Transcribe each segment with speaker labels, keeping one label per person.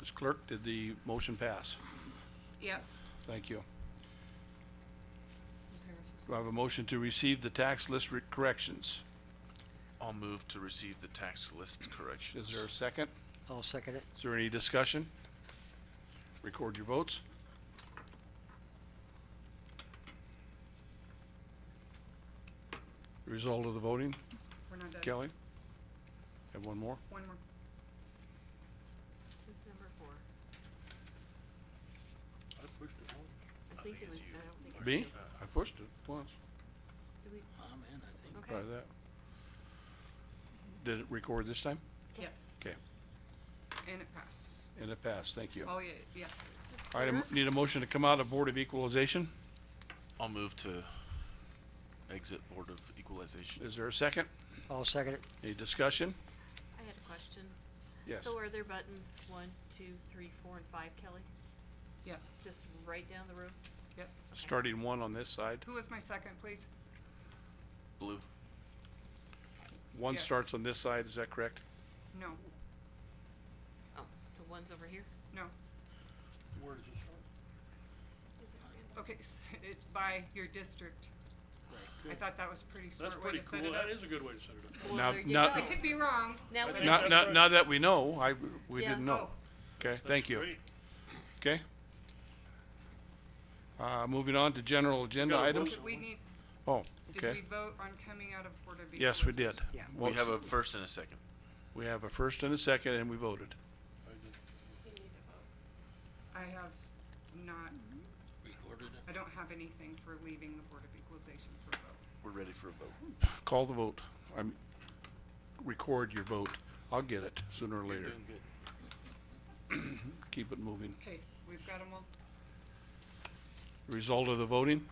Speaker 1: Ms. Clerk, did the motion pass?
Speaker 2: Yes.
Speaker 1: Thank you. Do I have a motion to receive the tax list re- corrections?
Speaker 3: I'll move to receive the tax list corrections.
Speaker 1: Is there a second?
Speaker 4: I'll second it.
Speaker 1: Is there any discussion? Record your votes. Result of the voting,
Speaker 2: We're not done.
Speaker 1: Kelly? Have one more?
Speaker 2: One more.
Speaker 5: Who's number four? I pushed it I think it was, I don't think it's.
Speaker 1: Me? I pushed it once,
Speaker 5: Do we,
Speaker 4: I'm in, I think.
Speaker 5: okay.
Speaker 1: try that. Did it record this time?
Speaker 2: Yes.
Speaker 1: Okay,
Speaker 2: And it passed.
Speaker 1: and it passed, thank you.
Speaker 2: Oh, yeah, yes.
Speaker 5: This is
Speaker 1: All right, I m-
Speaker 5: clear.
Speaker 1: need a motion to come out of Board of Equalization.
Speaker 3: I'll move to exit Board of Equalization.
Speaker 1: Is there a second?
Speaker 4: I'll second it.
Speaker 1: Any discussion?
Speaker 5: I had a question.
Speaker 1: Yes.
Speaker 5: So are there buttons one, two, three, four, and five, Kelly?
Speaker 2: Yes,
Speaker 5: Just right down the row?
Speaker 2: yep.
Speaker 1: Starting one on this side.
Speaker 2: Who was my second, please?
Speaker 3: Blue.
Speaker 1: One
Speaker 2: Yeah.
Speaker 1: starts on this side, is that correct?
Speaker 2: No,
Speaker 5: Oh, so one's over here?
Speaker 2: no. Okay, s- it's by your district. I thought that was a pretty
Speaker 6: That's
Speaker 2: smart way
Speaker 6: pretty
Speaker 2: to set
Speaker 6: cool.
Speaker 2: it up.
Speaker 6: That is a good way to set it up.
Speaker 5: Well,
Speaker 1: Now-
Speaker 5: there you
Speaker 1: now-
Speaker 5: go.
Speaker 2: I could be wrong.
Speaker 5: Now
Speaker 6: I
Speaker 5: we
Speaker 6: think
Speaker 5: know.
Speaker 1: Now,
Speaker 6: that's
Speaker 1: now,
Speaker 6: right.
Speaker 1: now that we know, I, we
Speaker 5: Yeah.
Speaker 1: didn't know.
Speaker 2: Oh.
Speaker 1: Okay, thank
Speaker 6: That's
Speaker 1: you.
Speaker 6: great.
Speaker 1: Okay. Uh, moving on to general agenda
Speaker 6: Gotta
Speaker 1: items.
Speaker 6: vote.
Speaker 2: Did we need,
Speaker 1: Oh,
Speaker 2: did we
Speaker 1: okay.
Speaker 2: vote on coming out of Board of
Speaker 1: Yes, we
Speaker 2: Equalization?
Speaker 1: did.
Speaker 4: Yeah.
Speaker 3: We
Speaker 1: Votes-
Speaker 3: have a first and a second.
Speaker 1: We have a first and a second, and we voted.
Speaker 2: I have not. Recorded it? I don't have anything for leaving the Board of Equalization for vote.
Speaker 3: We're ready for a vote.
Speaker 1: Call the vote. I'm, record your vote. I'll get it sooner or later. Keep it moving.
Speaker 2: Okay, we've got them all.
Speaker 1: Result of the voting?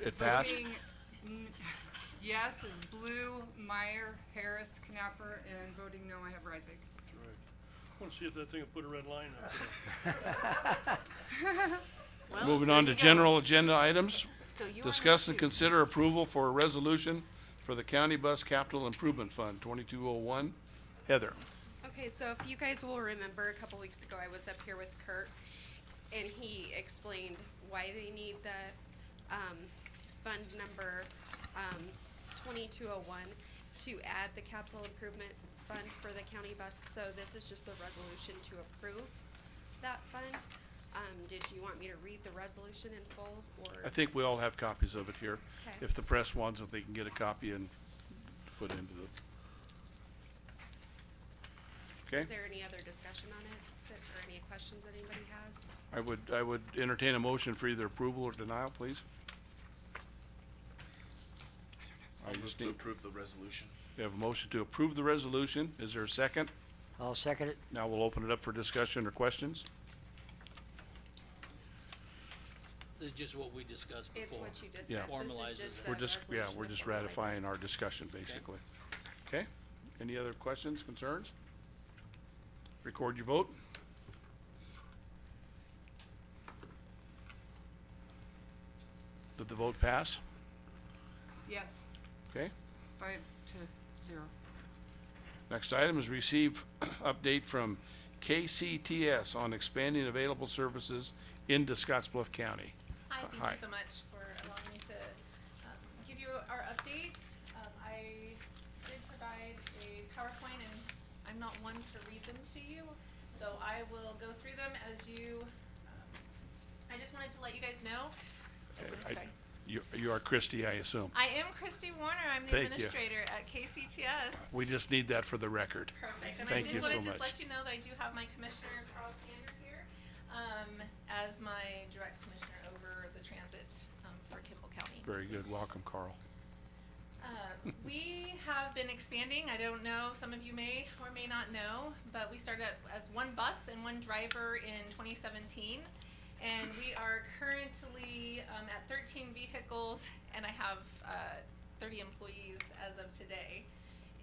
Speaker 1: It passed?
Speaker 2: Voting n- yes is Blue, Meyer, Harris, Knapper, and voting no, I have Reisig.
Speaker 6: That's right. I wanna see if that thing will put a red line up.
Speaker 5: Well,
Speaker 1: Moving
Speaker 5: there
Speaker 1: on to
Speaker 5: you go.
Speaker 1: general agenda items.
Speaker 5: So you are
Speaker 1: Discuss and
Speaker 5: number two.
Speaker 1: consider approval for a resolution for the County Bus Capital Improvement Fund, twenty-two oh one. Heather,
Speaker 7: Okay, so if you guys will remember, a couple weeks ago, I was up here with Kurt, and he explained why they need the, um, fund number, um, twenty-two oh one to add the capital improvement fund for the county bus, so this is just a resolution to approve that fund. Um, did you want me to read the resolution in full, or?
Speaker 1: I think we all have copies of it here.
Speaker 7: Okay.
Speaker 1: If the press wants it, they can get a copy and put into the. Okay,
Speaker 7: Is there any other discussion on it, that- or any questions anybody has?
Speaker 1: I would, I would entertain a motion for either approval or denial, please. I
Speaker 3: I'll move
Speaker 1: just
Speaker 3: to
Speaker 1: need,
Speaker 3: approve the resolution.
Speaker 1: we have a motion to approve the resolution. Is there a second?
Speaker 4: I'll second it.
Speaker 1: Now we'll open it up for discussion or questions.
Speaker 8: This is just what we discussed
Speaker 7: It's
Speaker 8: before.
Speaker 7: what you discussed,
Speaker 1: Yeah.
Speaker 7: this is
Speaker 8: Formalizes
Speaker 7: just
Speaker 8: it.
Speaker 7: the
Speaker 1: We're just, yeah,
Speaker 7: resolution
Speaker 1: we're
Speaker 7: to
Speaker 1: just
Speaker 7: formalize it.
Speaker 1: ratifying our discussion, basically. Okay? Any other questions, concerns? Record your vote. Did the vote pass?
Speaker 2: Yes,
Speaker 1: Okay?
Speaker 2: five to zero.
Speaker 1: Next item is receive update from KCTS on expanding available services into Scottsbluff County.
Speaker 9: Hi, thank
Speaker 1: Hi.
Speaker 9: you so much for allowing me to um, give you our updates. Um, I did provide a PowerPoint, and I'm not one to read them to you, so I will go through them as you, um, I just wanted to let you guys know.
Speaker 1: I-
Speaker 9: Sorry.
Speaker 1: You, you are Christie, I assume.
Speaker 9: I am Christy Warner, I'm the
Speaker 1: Thank you.
Speaker 9: administrator at KCTS.
Speaker 1: We just need that for the record.
Speaker 9: Perfect, and I
Speaker 1: Thank you
Speaker 9: did wanna
Speaker 1: so
Speaker 9: just
Speaker 1: much.
Speaker 9: let you know that I do have my commissioner, Carl Sander, here, um, as my direct commissioner over the transit, um, for Kimball County.
Speaker 1: Very good. Welcome, Carl.
Speaker 9: Uh, we have been expanding. I don't know, some of you may or may not know, but we started out as one bus and one driver in 2017. And we are currently um, at 13 vehicles, and I have uh, 30 employees as of today.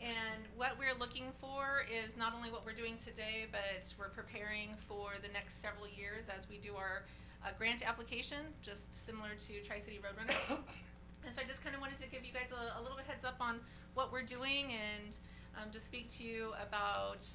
Speaker 9: And what we're looking for is not only what we're doing today, but we're preparing for the next several years as we do our uh, grant application, just similar to Tri City Roadrunner. And so I just kind of wanted to give you guys a, a little bit heads up on what we're doing and um, just speak to you about